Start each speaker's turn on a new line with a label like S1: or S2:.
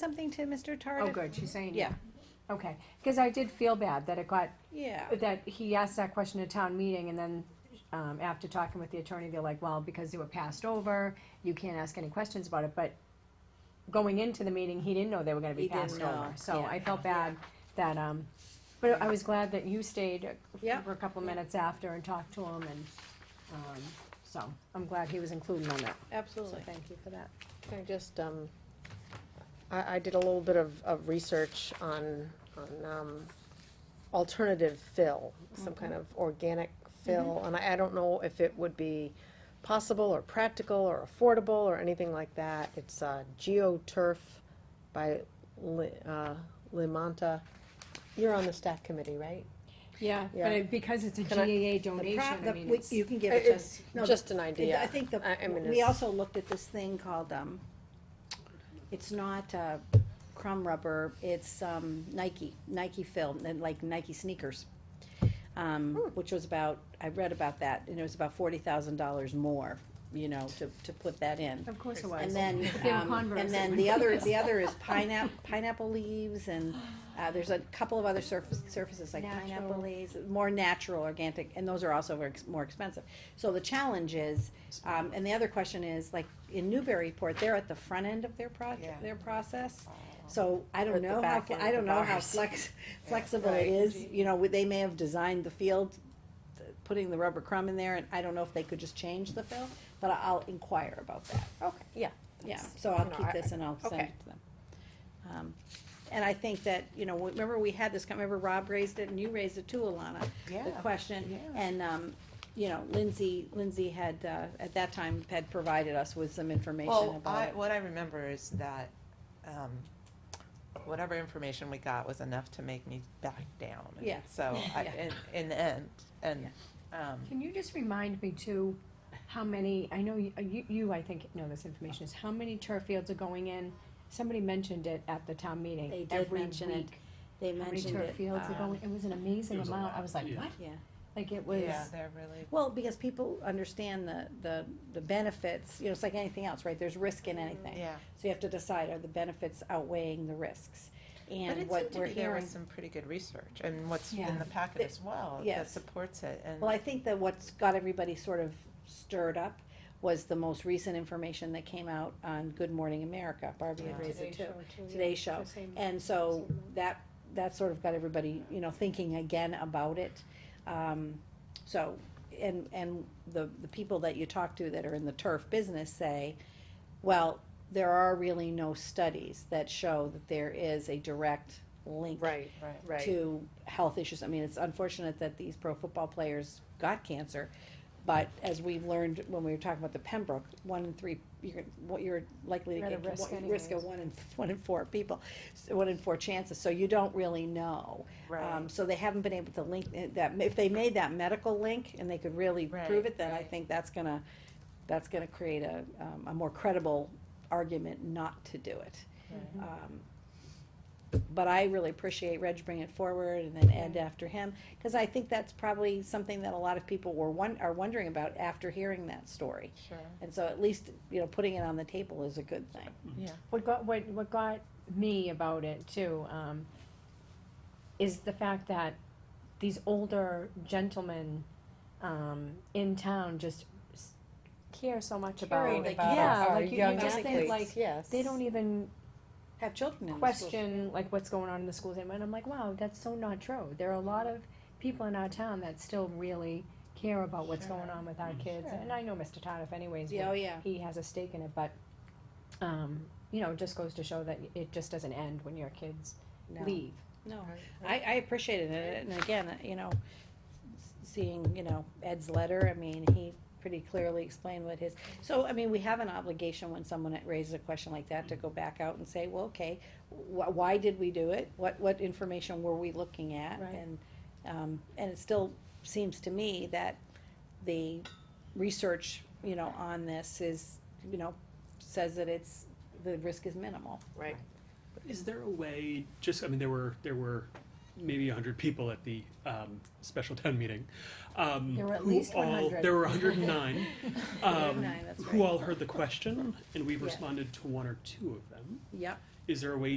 S1: something to Mr. Tardif?
S2: Oh, good, she's saying.
S1: Yeah,
S2: Okay, because I did feel bad that it got,
S1: yeah.
S2: that he asked that question at town meeting and then, um, after talking with the attorney, they're like, well, because they were passed over, you can't ask any questions about it, but going into the meeting, he didn't know they were gonna be
S1: He didn't
S2: passed
S1: know,
S2: over, so
S1: yeah.
S2: I felt bad that, um, but I was glad that you stayed
S1: Yeah.
S2: for a couple
S1: Yeah.
S2: minutes after and talked to him and, um, so, I'm glad he was included on that, so
S1: Absolutely.
S2: thank you for that.
S3: I just, um, I, I did a little bit of, of research on, on, um, alternative fill, some kind of organic fill, and I, I don't know if it would be possible or practical or affordable or anything like that. It's, uh, GeoTurf by Li, uh, Limonta. You're on the staff committee, right?
S2: Yeah,
S3: Yeah.
S2: but it- because it's a
S3: Can I-
S2: GAA
S1: The
S2: donation,
S1: pro-
S2: I
S1: the-
S2: mean,
S1: we-
S2: it's.
S1: You can give it to us.
S3: It's
S1: No,
S3: just an
S1: the-
S3: idea.
S1: I think the,
S3: I mean,
S1: we
S3: it's-
S1: also looked at this thing called, um, it's not, uh, crumb rubber, it's, um, Nike, Nike film, and like Nike sneakers. Um, which was about, I read about that, and it was about forty thousand dollars more, you know, to, to put that in.
S2: Of course it was.
S1: And then,
S2: If they were
S1: um,
S2: Converse,
S1: and
S2: it
S1: then
S2: would
S1: the
S2: be
S1: other,
S2: nice.
S1: the other is pineapple, pineapple leaves and, uh, there's a couple of other surface, surfaces like pineapple
S2: Natural.
S1: leaves, more natural, organic, and those are also very ex- more expensive. So the challenge is, um, and the other question is, like, in Newburyport, they're at the front end of their project, their process. So I
S3: Or Oh. at
S1: don't
S3: the
S1: know how,
S3: back
S1: fl-
S3: end
S1: I
S3: of
S1: don't
S3: the
S1: know how
S3: bars.
S1: flex, flexible
S3: Right.
S1: it is, you know, they may have designed the field, th- putting the rubber crumb in there, and I don't know if they could just change the fill, but I- I'll inquire about that.
S3: Okay, yeah.
S1: Yeah,
S3: that's-
S1: so I'll
S3: you know,
S1: keep
S3: I-
S1: this and I'll send
S3: okay.
S1: it to them. Um, And I think that, you know, remember we had this, remember Rob raised it and you raised it too, Alana? The
S3: Yeah.
S1: question,
S3: yeah.
S1: and, um, you know, Lindsay, Lindsay had, uh, at that time, had provided us with some information
S4: Well,
S1: about
S4: I,
S1: it.
S4: what I remember is that, um, whatever information we got was enough to make me back down. And
S1: Yeah.
S4: So, I,
S1: Yeah.
S4: in, in the end, and, um,
S2: Can you just remind me too, how many, I know you, you- you, I think, know this information, is how many turf fields are going in? Somebody mentioned it at the town meeting.
S1: They did
S2: every
S1: mention it.
S2: week.
S1: They
S2: How many
S1: mentioned
S2: turf
S1: it.
S2: fields are
S1: um,
S2: going, it was an
S5: It
S2: amazing
S5: was a
S2: amount,
S5: lot,
S2: I was like,
S5: yeah.
S2: what?
S1: Yeah,
S2: Like it was,
S4: yeah, they're really,
S1: well, because people understand the, the, the benefits, you know, it's like anything else, right? There's risk in anything.
S4: yeah.
S1: So you have to decide, are the benefits outweighing the risks?
S4: But
S1: And
S4: it
S1: what
S4: seemed to
S1: we're
S4: be there
S1: hearing.
S4: was some pretty good research and what's
S2: Yeah.
S4: in the packet
S1: Th-
S4: as well that
S1: yes.
S4: supports it and.
S1: Well, I think that what's got everybody sort of stirred up was the most recent information that came out on Good Morning America. Barbie had
S4: Yeah.
S1: raised it too. Today's show. And so that, that sort of got everybody, you know, thinking again about it. Um, so, and, and the, the people that you talk to that are in the turf business say, well, there are really no studies that show that there is a direct link
S3: Right,
S4: Right.
S3: right.
S2: uh,
S1: to health issues. I mean, it's unfortunate that these pro football players got cancer, but as we've learned when we were talking about the Pembroke, one in three, you're, what you're likely to
S2: You're at a
S1: get,
S2: risk
S1: one- risk of
S2: anyways.
S1: one in, one in four people, s- one in four chances, so you don't really know. Um,
S4: Right.
S1: so they haven't been able to link it- that, if they made that medical link and they could really
S4: Right,
S1: prove it, then I
S4: right.
S1: think that's gonna, that's gonna create a, um, a more credible argument not to do it.
S4: Right.
S1: Um, But I really appreciate Reg bringing it forward and then Ed after him, cause I think that's probably something that a lot of people were one, are wondering about after hearing that story.
S4: Sure,
S1: And so at least, you know, putting it on the table is a good thing.
S4: yeah.
S2: what got, what, what got me about it too, um, is the fact that these older gentlemen, um, in town just s- care so much about.
S1: Caring
S2: like,
S1: about
S2: yeah,
S3: our
S2: like, you- you
S3: young
S2: just think,
S1: athletes.
S2: like,
S3: Yes.
S2: They don't e- even
S1: Have children in the schools.
S2: question like what's going on in the schools and I'm like, wow, that's so not true. There are a lot of people in our town that still really care about what's
S4: Sure.
S2: going on with our kids.
S4: Sure.
S2: And I know Mr. Tardif anyways,
S1: Yeah, oh,
S2: but
S1: yeah.
S2: he has a stake in it, but um, you know, it just goes to show that it just doesn't end when your kids
S1: No.
S2: leave.
S1: No, I, I appreciated it, and again, uh, you know, s- seeing, you know, Ed's letter, I mean, he pretty clearly explained what his, so, I mean, we have an obligation when someone raises a question like that to go back out and say, well, okay, wh- why did we do it? What, what information were we looking at?
S2: Right.
S1: And, um, and it still seems to me that the research, you know, on this is, you know, says that it's, the risk is minimal.
S3: Right.
S5: Is there a way? Just I mean, there were there were maybe hundred people at the um, special town meeting. Um,
S2: There were at
S5: who
S2: least
S5: all-
S2: 100.
S5: There were one hundred and nine. um,
S1: 109, that's
S5: Who
S1: right.
S5: all heard the question, and we've
S1: Yeah.
S5: responded to one or two of them.
S1: Yep.
S5: is there a way